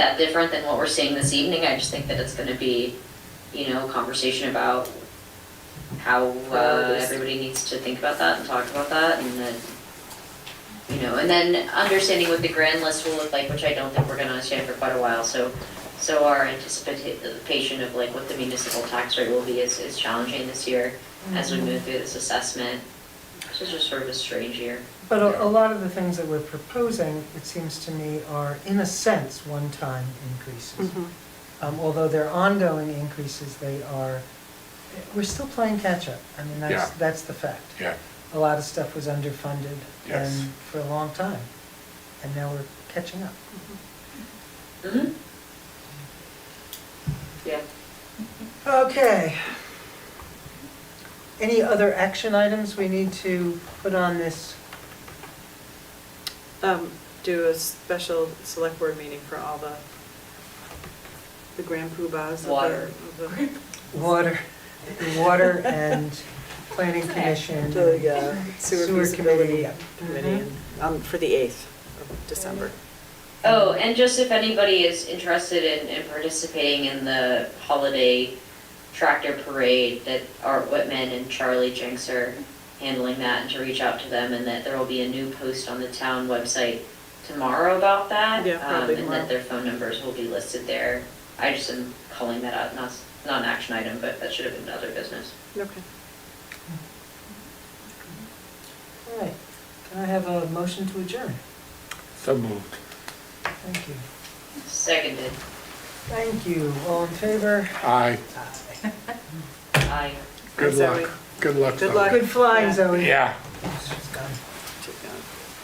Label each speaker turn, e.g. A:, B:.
A: that different than what we're seeing this evening. I just think that it's gonna be, you know, a conversation about how uh,
B: Priorities.
A: everybody needs to think about that and talk about that and then, you know, and then understanding what the grand list will look like, which I don't think we're gonna understand for quite a while, so, so our anticipation of like what the municipal tax rate will be is, is challenging this year as we move through this assessment. This is just sort of a strange year.
C: But a, a lot of the things that we're proposing, it seems to me, are in a sense, one-time increases.
B: Mm-hmm.
C: Um, although they're ongoing increases, they are, we're still playing catch-up. I mean, that's,
D: Yeah.
C: that's the fact.
D: Yeah,
C: A lot of stuff was underfunded
D: Yes.
C: and for a long time. And now we're catching up.
A: Mm-hmm. Yeah.
C: Okay. Any other action items we need to put on this?
B: Um, do a special select board meeting for all the, the grand poobahs of the.
A: Water.
B: of the-
C: Water, water and planning commission.
B: The uh, sewer
C: Sewer
B: feasibility
C: committee, yeah.
B: committee, and, um, for the eighth of December.
C: Mm-hmm.
A: Oh, and just if anybody is interested in, in participating in the holiday tractor parade, that Art Whitman and Charlie Jenks are handling that, and to reach out to them, and that there will be a new post on the town website tomorrow about that.
B: Yeah, probably
A: um, And
B: tomorrow.
A: that their phone numbers will be listed there. I just am calling that out, not, not an action item, but that should have been other business.
B: Okay.
C: All right, can I have a motion to adjourn?
D: so moved.
C: Thank you.
A: Seconded,
C: Thank you, all in favor?
D: Aye,
A: aye.
D: good
B: Zoe.
D: luck, good luck.
B: Good
D: Zoe.
B: luck.
C: Good flying, Zoe.
D: Yeah.
B: uh,